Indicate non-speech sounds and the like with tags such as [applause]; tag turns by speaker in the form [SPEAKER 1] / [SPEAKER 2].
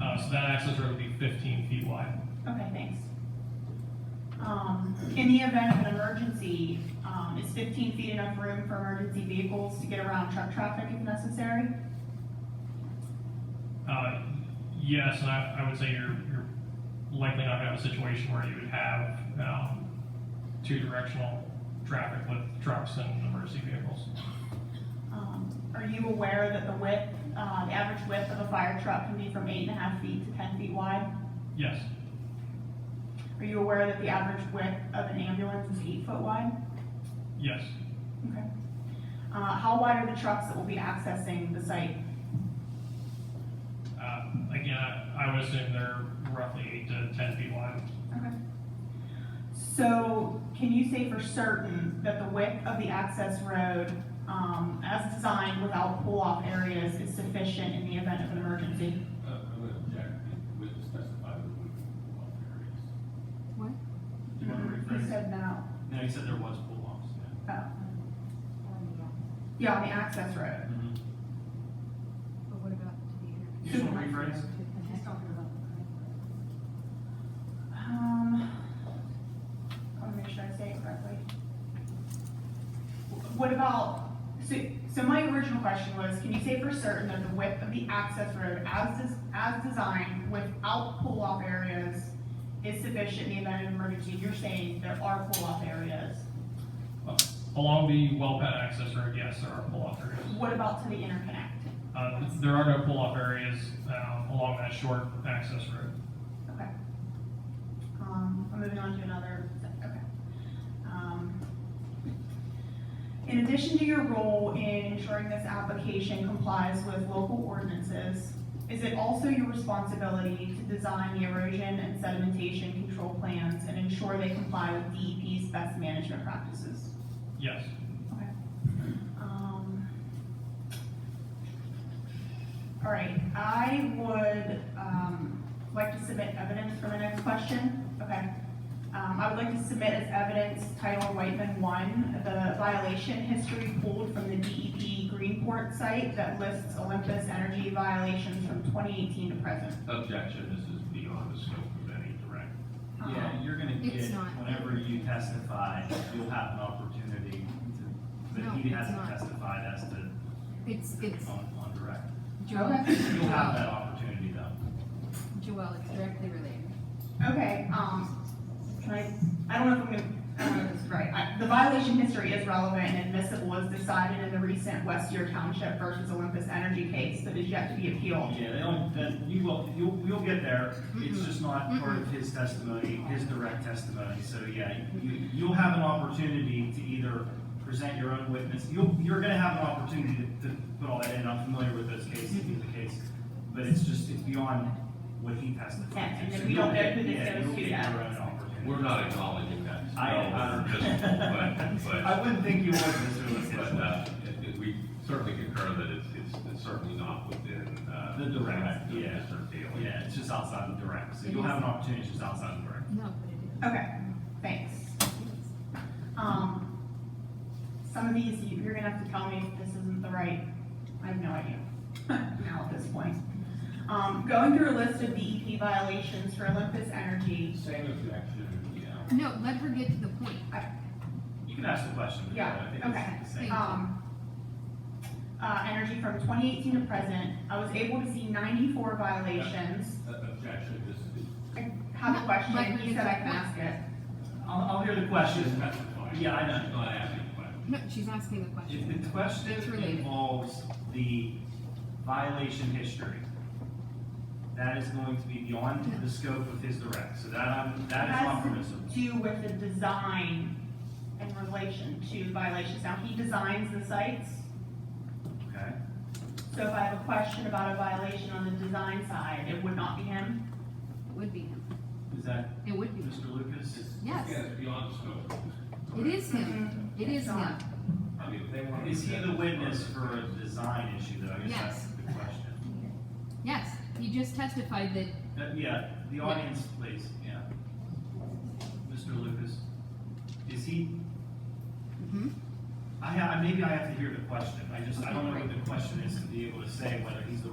[SPEAKER 1] Uh, so that access road would be fifteen feet wide.
[SPEAKER 2] Okay, thanks. Um, in the event of an emergency, um, is fifteen feet enough room for emergency vehicles to get around truck traffic if necessary?
[SPEAKER 1] Uh, yes, and I, I would say you're, you're likely not gonna have a situation where you would have, um, two directional traffic with trucks and emergency vehicles.
[SPEAKER 2] Um, are you aware that the width, uh, the average width of a fire truck can be from eight and a half feet to ten feet wide?
[SPEAKER 1] Yes,
[SPEAKER 2] Are you aware that the average width of an ambulance is eight foot wide?
[SPEAKER 1] yes.
[SPEAKER 2] Okay. Uh, how wide are the trucks that will be accessing the site?
[SPEAKER 1] Uh, again, I I would assume they're roughly eight to ten feet wide.
[SPEAKER 2] Okay. So can you say for certain that the width of the access road, um, as designed without pull-off areas is sufficient in the event of an emergency?
[SPEAKER 3] Uh, I'm gonna object, with the specified wood block areas.
[SPEAKER 4] Um,
[SPEAKER 5] You wanna
[SPEAKER 2] You
[SPEAKER 5] rephrase?
[SPEAKER 2] said no.
[SPEAKER 5] No, he said there was pull-offs,
[SPEAKER 2] Oh. Yeah, on the access road.
[SPEAKER 5] yeah.
[SPEAKER 4] But what about to the interview?
[SPEAKER 5] You just wanna rephrase?
[SPEAKER 4] He's talking about the
[SPEAKER 2] Um, I wanna make sure I say it correctly. What about, so, so my original question was, can you say for certain that the width of the access road as, des- as designed without pull-off areas is sufficient in the event of emergency? You're saying there are pull-off areas.
[SPEAKER 1] Uh, Along the well pad access road, yes, there are pull-off areas.
[SPEAKER 2] What about to the interconnect?
[SPEAKER 1] Uh, there are no pull-off areas, um, along that short access road.
[SPEAKER 2] Okay. Um, I'm moving on to another, okay. Um, In addition to your role in ensuring this application complies with local ordinances, is it also your responsibility to design the erosion and sedimentation control plans and ensure they comply with DEP's best management practices?
[SPEAKER 1] Yes,
[SPEAKER 2] Um, All right, I would, um, like to submit evidence for the next question, okay? Um, I would like to submit as evidence Title Whiteman One, the violation history pulled from the DEP Greenport site that lists Olympus Energy violations from twenty eighteen to present.
[SPEAKER 3] Objection, this is beyond the scope of any direct.
[SPEAKER 2] Um,
[SPEAKER 5] Yeah, you're gonna
[SPEAKER 4] It's
[SPEAKER 5] get,
[SPEAKER 4] not.
[SPEAKER 5] whenever you testify, you'll have an opportunity to,
[SPEAKER 4] No,
[SPEAKER 5] but he
[SPEAKER 4] it's
[SPEAKER 5] hasn't
[SPEAKER 4] not.
[SPEAKER 5] testified as to,
[SPEAKER 4] It's, it's,
[SPEAKER 5] on, on direct.
[SPEAKER 4] [coughs] Joel,
[SPEAKER 5] You'll have that opportunity though.
[SPEAKER 4] Joel, it's directly related.
[SPEAKER 2] Okay, um, can I, I don't know if I'm gonna, I don't know if this is right. I- The violation history is relevant and admissible as decided in the recent Westier Township versus Olympus Energy case that is yet to be appealed.
[SPEAKER 5] Yeah, they don't, then you will, you'll, you'll get there, it's
[SPEAKER 4] Mm-mm.
[SPEAKER 5] just
[SPEAKER 2] Mm-hmm.
[SPEAKER 5] not part of his testimony, his direct testimony, so yeah, you, you'll have an opportunity to either present your own witness, you'll, you're gonna have an opportunity to, to put all that in, I'm familiar with those cases, with the case, but it's just, it's beyond what he testified.
[SPEAKER 2] Yeah, and
[SPEAKER 5] to.
[SPEAKER 2] then
[SPEAKER 5] So
[SPEAKER 2] we don't
[SPEAKER 5] you'll
[SPEAKER 2] know who
[SPEAKER 5] get-
[SPEAKER 2] this
[SPEAKER 5] yeah,
[SPEAKER 2] goes
[SPEAKER 5] you'll
[SPEAKER 2] to
[SPEAKER 5] get
[SPEAKER 2] yet.
[SPEAKER 5] your own opportunity.
[SPEAKER 3] We're not acknowledging that. [laughs]
[SPEAKER 5] I-
[SPEAKER 3] No,
[SPEAKER 5] I-
[SPEAKER 3] we're just- [laughs] But, but,
[SPEAKER 5] [laughs] I wouldn't think you would, Mr.
[SPEAKER 3] but,
[SPEAKER 5] Lucas.
[SPEAKER 3] uh, it- it- we certainly concur that it's, it's- it's certainly not within, uh.
[SPEAKER 5] The direct,
[SPEAKER 3] of
[SPEAKER 5] yeah.
[SPEAKER 3] Mr. Daley.
[SPEAKER 5] Yeah, it's just outside the direct, so you'll have an opportunity just outside the direct.
[SPEAKER 4] No, but it
[SPEAKER 2] Okay, thanks.
[SPEAKER 4] is.
[SPEAKER 2] Um, some of these, you- you're gonna have to tell me if this isn't the right, I have no idea [laughs] now at this point. Um, going through a list of DEP violations for Olympus Energy,
[SPEAKER 3] Same objection, yeah.
[SPEAKER 4] No, let her get to the point.
[SPEAKER 5] You can ask the question. but uh,
[SPEAKER 2] Yeah,
[SPEAKER 5] I think it's
[SPEAKER 2] okay.
[SPEAKER 5] the same.
[SPEAKER 2] um, uh, energy from twenty eighteen to present, I was able to see ninety-four violations.
[SPEAKER 3] uh, Objection, this is.
[SPEAKER 2] I have a question, he said I can ask it.
[SPEAKER 5] I'll, I'll hear the question.
[SPEAKER 3] Specified.
[SPEAKER 5] Yeah, I know.
[SPEAKER 3] She's not asking a question.
[SPEAKER 4] No, she's asking the
[SPEAKER 5] If
[SPEAKER 4] question.
[SPEAKER 5] the question
[SPEAKER 4] It's related.
[SPEAKER 5] involves the violation history, that is going to be beyond the scope of his direct, so that, I'm- that is not permissible.
[SPEAKER 2] It has to do with the design in relation to violations. Now, he designs the sites,
[SPEAKER 5] Okay,
[SPEAKER 2] so if I have a question about a violation on the design side, it would not be him.
[SPEAKER 4] It would be him.
[SPEAKER 5] is that
[SPEAKER 4] It would be him.
[SPEAKER 5] Mr. Lucas?
[SPEAKER 4] Yes,
[SPEAKER 3] Yeah, it's beyond the scope.
[SPEAKER 4] it is him. It is him.
[SPEAKER 3] I mean, if they want. to
[SPEAKER 5] Is he the
[SPEAKER 3] object-
[SPEAKER 5] witness for a design issue, though? I guess that's
[SPEAKER 4] Yes.
[SPEAKER 5] the question.
[SPEAKER 4] Yes, he just testified that,
[SPEAKER 5] That- Uh, Yeah, the audience, please, yeah. Mr. Lucas, is he
[SPEAKER 4] mhm.
[SPEAKER 5] I, ha- maybe I have to hear the question, I just, I don't know what the question is to be able to say whether he's the